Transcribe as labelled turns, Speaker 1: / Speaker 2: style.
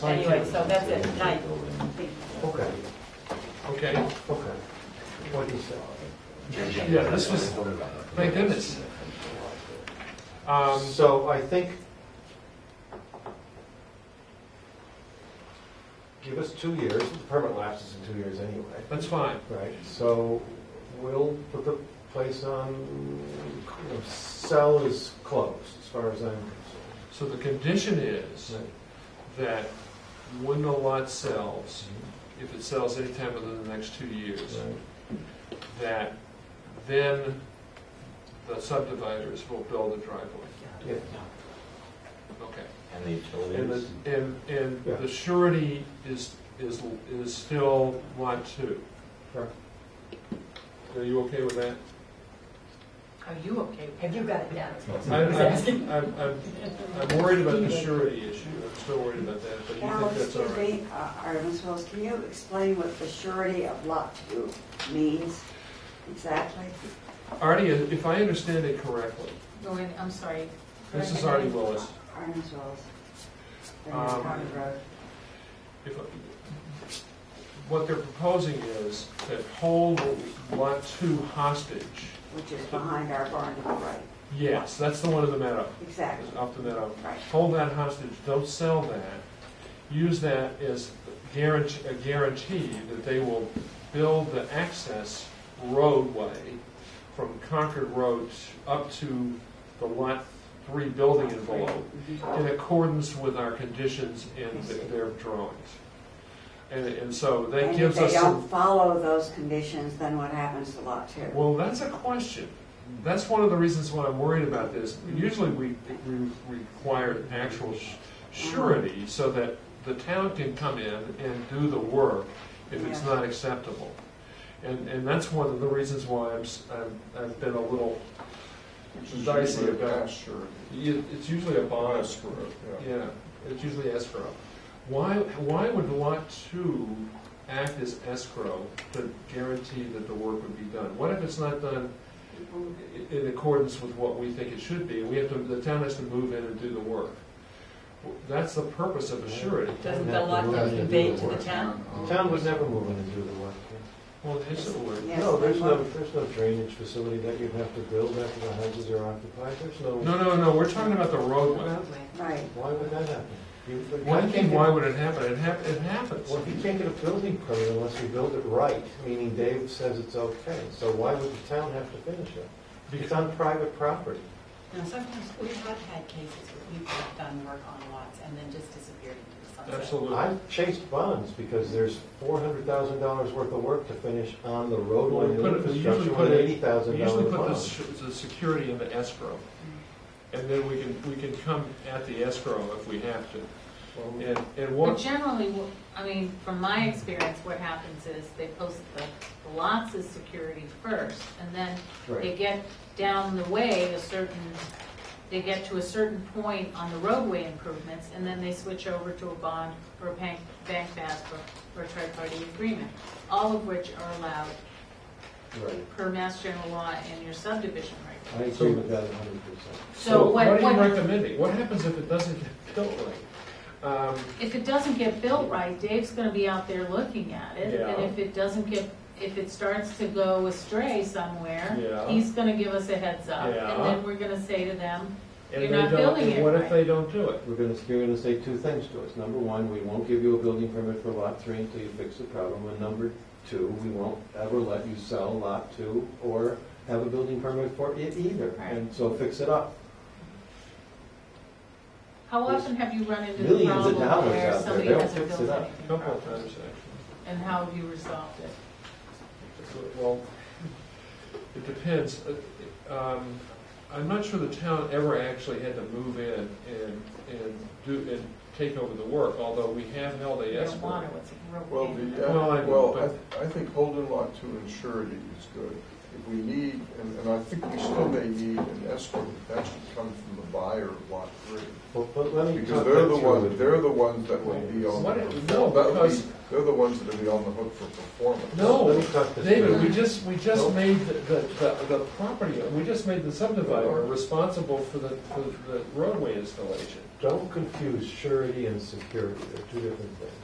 Speaker 1: Anyway, so that's it, tonight.
Speaker 2: Okay,
Speaker 3: Okay,
Speaker 2: okay. What is that?
Speaker 3: yeah, this was, my goodness. Um,
Speaker 2: So I think, give us two years, the permit lapses in two years anyway,
Speaker 3: That's fine.
Speaker 2: right? So we'll put the place on, you know, sell is closed, as far as I'm concerned.
Speaker 3: So the condition is that when the lot sells, if it sells anytime within the next two years,
Speaker 2: Right.
Speaker 3: that then the subdividers will build a driveway.
Speaker 2: Yeah,
Speaker 3: Okay.
Speaker 4: And the
Speaker 2: and
Speaker 4: utilities?
Speaker 2: then-
Speaker 3: And, and
Speaker 2: Yeah.
Speaker 3: the surety is, is, is still lot two.
Speaker 2: Correct.
Speaker 3: Are you okay with that?
Speaker 1: Are you okay? Have you got it down?
Speaker 3: I- I'm, I'm, I'm, I'm worried about the surety issue, I'm still worried about that, but you think
Speaker 5: Alex,
Speaker 3: that's all
Speaker 5: excuse
Speaker 3: right.
Speaker 5: me, uh, Artemis Wells, can you explain what the surety of lot two means exactly?
Speaker 3: Artie, if I understand it correctly,
Speaker 6: Going, I'm sorry.
Speaker 3: this is Artie Willis,
Speaker 5: Artemis Wells. Then it's
Speaker 3: Um,
Speaker 5: County Road.
Speaker 3: if, what they're proposing is that hold lot two hostage.
Speaker 5: Which is behind our barn to the right.
Speaker 3: Yes, that's the one in the meadow,
Speaker 5: Exactly,
Speaker 3: up the meadow.
Speaker 5: right.
Speaker 3: Hold that hostage, don't sell that. Use that as guarantee, a guarantee that they will build the access roadway from Concord Road up to the Lot 3 building envelope
Speaker 5: Mm-hmm.
Speaker 3: in accordance with our conditions and th- their drawings. And, and so that
Speaker 5: And
Speaker 3: gives
Speaker 5: If
Speaker 3: us
Speaker 5: they
Speaker 3: some,
Speaker 5: don't follow those conditions, then what happens to lot two?
Speaker 3: well, that's a question. That's one of the reasons why I'm worried about this.
Speaker 5: Mm-hmm.
Speaker 3: Usually we, we require actual sh-
Speaker 5: Mm-hmm.
Speaker 3: surety so that the town can come in and do the work if it's
Speaker 5: Yes.
Speaker 3: not acceptable. And, and that's one of the reasons why I'm, s- I'm- I've been a little dicey about. You- It's usually a bond. Escrow, yeah. it's usually escrow. Why, why would lot two act as escrow to guarantee that the work would be done? What if it's not done i- in accordance with what we think it should be? We have to, the town has to move in and do the work. That's the purpose of a surety.
Speaker 1: Doesn't the lot go conveyed to the town?
Speaker 2: The town would never move in and do the work.
Speaker 3: Well, it is a word.
Speaker 5: Yes,
Speaker 2: No, there's
Speaker 5: then
Speaker 2: no,
Speaker 5: what-
Speaker 2: there's no drainage facility that you'd have to build after the houses are occupied, there's
Speaker 3: No, no, no, we're talking about the roadway.
Speaker 1: Roadway.
Speaker 5: Right,
Speaker 2: Why would that happen? You- you
Speaker 3: Why,
Speaker 2: can't get-
Speaker 3: why would it happen? It hap, it happens.
Speaker 2: Well, if you can't get a building permit unless you build it right, meaning Dave says it's okay, so why would the town have to finish it? It's on private property.
Speaker 6: Now, sometimes we have had cases where people have done work on lots and then just disappeared into the sunset.
Speaker 3: Absolutely.
Speaker 2: I've chased bonds because there's four hundred thousand dollars worth of work to finish on the roadway
Speaker 3: We
Speaker 2: and
Speaker 3: put it- we usually
Speaker 2: infrastructure
Speaker 3: put
Speaker 2: with
Speaker 3: it-
Speaker 2: eighty thousand
Speaker 3: We usually
Speaker 2: dollar
Speaker 3: put the,
Speaker 2: bonds.
Speaker 3: s- the security in the escrow, and then we can, we can come at the escrow if we have to.
Speaker 2: Well,
Speaker 3: And, and
Speaker 6: But
Speaker 3: what,
Speaker 6: generally, wha- I mean, from my experience, what happens is they post the the lots as security first, and then they
Speaker 2: Right,
Speaker 6: get down the way a certain, they get to a certain point on the roadway improvements, and then they switch over to a bond or a bank, bank bask or, or a tri-party agreement, all of which are allowed
Speaker 2: right.
Speaker 6: per mass general law and your subdivision regulations.
Speaker 2: I agree with that hundred percent.
Speaker 3: so
Speaker 6: So
Speaker 3: what
Speaker 6: what,
Speaker 3: are you
Speaker 6: what,
Speaker 3: recommending? What happens if it doesn't get built right? Um,
Speaker 6: if it doesn't get built right, Dave's gonna be out there looking at it, and
Speaker 3: Yeah.
Speaker 6: if it doesn't get, if it starts to go astray somewhere,
Speaker 3: Yeah.
Speaker 6: he's gonna give us a heads up, and
Speaker 3: Yeah.
Speaker 6: then we're gonna say to them,
Speaker 3: And
Speaker 6: You're
Speaker 3: they
Speaker 6: not
Speaker 3: don't,
Speaker 6: building
Speaker 3: and
Speaker 6: it
Speaker 3: what if
Speaker 6: right.
Speaker 3: they don't do it?
Speaker 2: We're gonna, you're gonna say two things to us. Number one, we won't give you a building permit for lot three until you fix the problem. And number two, we won't ever let you sell lot two or have a building permit for it either.
Speaker 6: Right.
Speaker 2: And so fix it up.
Speaker 6: How often have you run into the
Speaker 2: Millions of
Speaker 6: problem
Speaker 2: dollars out
Speaker 6: where
Speaker 2: there.
Speaker 6: somebody
Speaker 2: They'll
Speaker 6: hasn't
Speaker 2: fix
Speaker 6: built
Speaker 2: it up.
Speaker 3: A
Speaker 6: anything
Speaker 3: couple of
Speaker 6: properly?
Speaker 3: times, actually.
Speaker 6: And how have you resolved it?
Speaker 3: Well, it depends. Uh, um, I'm not sure the town ever actually had to move in and, and do, and take over the work, although we have held a
Speaker 6: You don't
Speaker 3: escrow.
Speaker 6: want to, it's a real
Speaker 4: uh,
Speaker 7: Well,
Speaker 6: pain.
Speaker 7: the,
Speaker 3: Well, I-
Speaker 7: uh, well, I, I think holding lot two in surety is good.
Speaker 4: if we need, and, and I think we still may need an escrow, but that should come from the buyer of lot three.
Speaker 2: But, but let me
Speaker 4: Because
Speaker 2: talk
Speaker 4: they're
Speaker 2: that
Speaker 4: the
Speaker 2: through
Speaker 4: ones,
Speaker 2: with
Speaker 4: they're
Speaker 2: you.
Speaker 4: the ones that will be on,
Speaker 3: What
Speaker 4: the
Speaker 3: it- no,
Speaker 4: hook. that would be,
Speaker 3: because-
Speaker 4: they're the ones that'll be on the hook for performance.
Speaker 2: Let
Speaker 3: No,
Speaker 2: me talk this
Speaker 3: David,
Speaker 2: through.
Speaker 3: we just, we just
Speaker 4: Nope.
Speaker 3: made the, the, the- the property, we just made the subdivider responsible for the, for the roadway installation.
Speaker 2: Don't confuse surety and security, they're two different things.